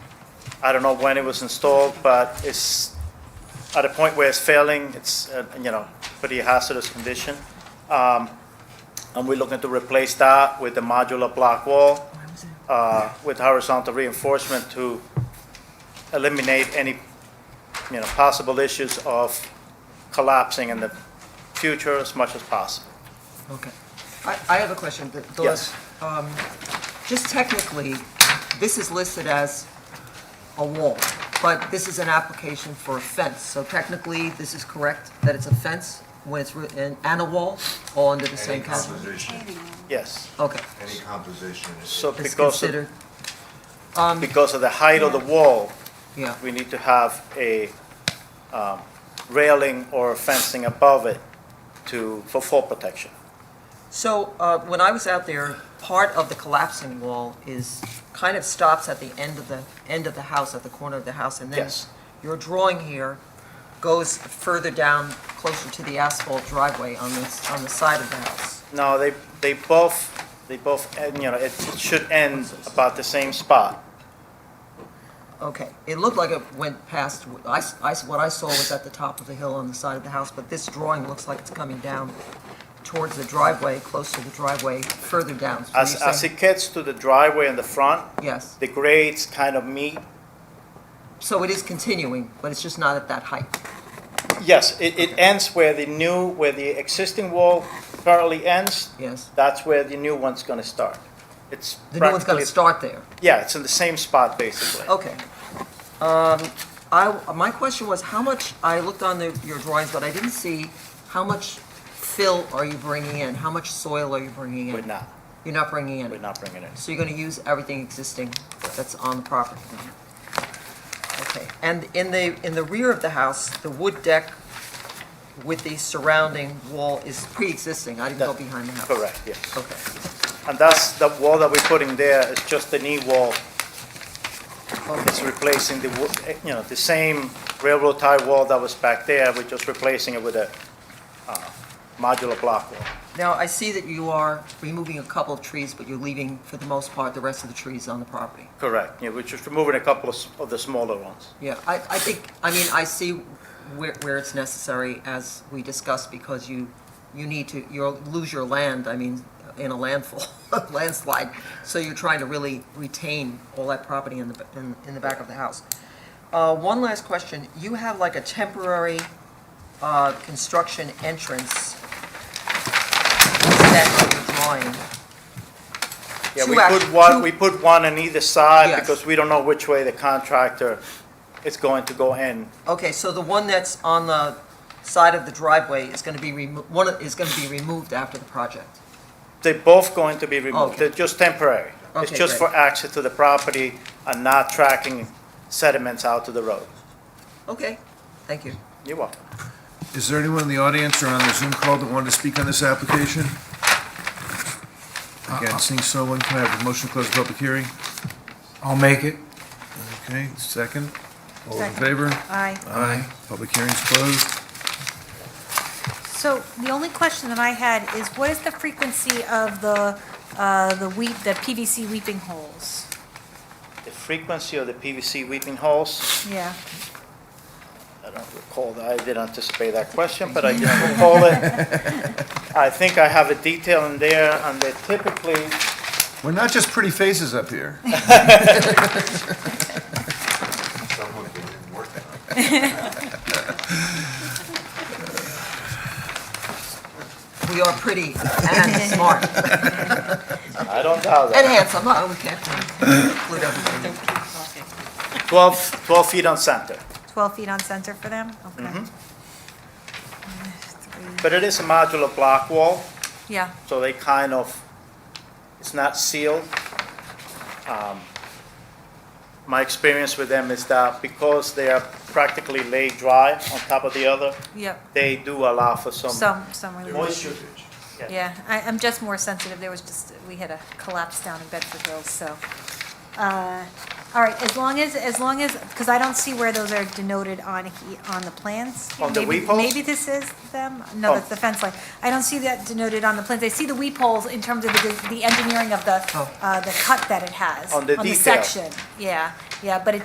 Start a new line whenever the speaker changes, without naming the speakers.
I don't know when it was installed, but it's at a point where it's failing, it's, uh, you know, pretty hazardous condition. Um, And we're looking to replace that with a modular block wall uh, with horizontal reinforcement to eliminate any, you know, possible issues of collapsing in the future as much as possible.
Okay. I, I have a question. The- the-
Yes.
um, Just technically, this is listed as a wall, but this is an application for a fence. So technically, this is correct, that it's a fence when it's, writ- and, and a wall, all under the
Any
same category?
composition,
Yes.
Okay.
any composition is.
So
It's
because, of-
considered,
because of the height of the wall,
yeah,
we need to have a um, railing or fencing above it to, for fall protection.
So uh, when I was out there, part of the collapsing wall is, kind of stops at the end of the, end of the house, at the corner of the house, and then
Yes.
your drawing here goes further down, closer to the asphalt driveway on this, on the side of the house.
No, they, they both, they both, end, you know, it should end about the same spot.
Okay, it looked like it went past, I, s- I s- what I saw was at the top of the hill on the side of the house, but this drawing looks like it's coming down towards the driveway, close to the driveway, further down. So
As,
you're
as
saying-
it gets to the driveway in the front,
Yes,
the grades kind of meet.
so it is continuing, but it's just not at that height.
Yes, it, it ends where the new, where the existing wall currently ends.
Yes.
That's where the new one's gonna start. It's
The new one's
practically-
gonna start there.
Yeah, it's in the same spot, basically.
Okay. Um, I, my question was, how much, I looked on the, your drawings, but I didn't see, how much fill are you bringing in? How much soil are you bringing
We're
in?
not,
You're not bringing
we're
in.
not bringing it in.
So you're gonna use everything existing that's on the property? Okay, and in the, in the rear of the house, the wood deck with the surrounding wall is pre-existing? I didn't go
That-
behind the house?
Correct, yes.
Okay,
And that's, the wall that we're putting there is just the knee wall. It's replacing the, wo- eh, you know, the same railroad tie wall that was back there, we're just replacing it with a uh, modular block wall.
now I see that you are removing a couple of trees, but you're leaving, for the most part, the rest of the trees on the property?
Correct, yeah, we're just removing a couple of s- of the smaller ones.
Yeah, I, I think, I mean, I see where, where it's necessary, as we discussed, because you, you need to, you'll lose your land, I mean, in a landfall, landslide. So you're trying to really retain all that property in the, ba- in, in the back of the house. Uh, one last question, you have like a temporary, uh, construction entrance set in your drawing.
Yeah,
Two
we
act-
put one,
two-
we put one on either side
Yes.
because we don't know which way the contractor is going to go in.
Okay, so the one that's on the side of the driveway is gonna be remo, one of- is gonna be removed after the project?
They're both going to be removed,
Okay.
they're just temporary. It's
Okay,
just for
great.
access to the property and not tracking sediments out to the road.
Okay, thank you.
You're welcome.
Is there anyone in the audience or on the Zoom call that wanted to speak on this application?
Uh-uh.
Again, seeing so one, can I have a motion to close the public hearing?
I'll make it.
Okay, second. All in
Second.
favor?
Aye.
Aye. Public hearing's closed.
So the only question that I had is what is the frequency of the, uh, the weep, the PVC weeping holes?
The frequency of the PVC weeping holes,
Yeah.
I don't recall, that. I didn't anticipate that question, but I didn't recall it. I think I have a detail in there, and they typically,
We're not just pretty faces up here.
Someone didn't work on it.
We are pretty and smart
I don't doubt
and
that,
handsome, huh? We can't include everything.
12, 12 feet on center.
12 feet on center for them? Okay. Three.
But it is a modular block wall,
Yeah,
so they kind of, it's not sealed. Um, My experience with them is that because they are practically laid dry on top of the other,
yep.
they do allow for some
Some, some relief.
moisture.
Yeah, I, I'm just more sensitive. There was just, we had a collapse down in Bedford Hills, so. uh, All right, as long as, as long as, because I don't see where those are denoted on, he- on the plans.
On the
Maybe-
weep holes?
Maybe this is them? No,
Oh.
that's the fence line. I don't see that denoted on the plans. I see the weep holes in terms of the, the engineering of the,
Oh.
uh, the cut that it has.
On the detail.
section, yeah, yeah, but it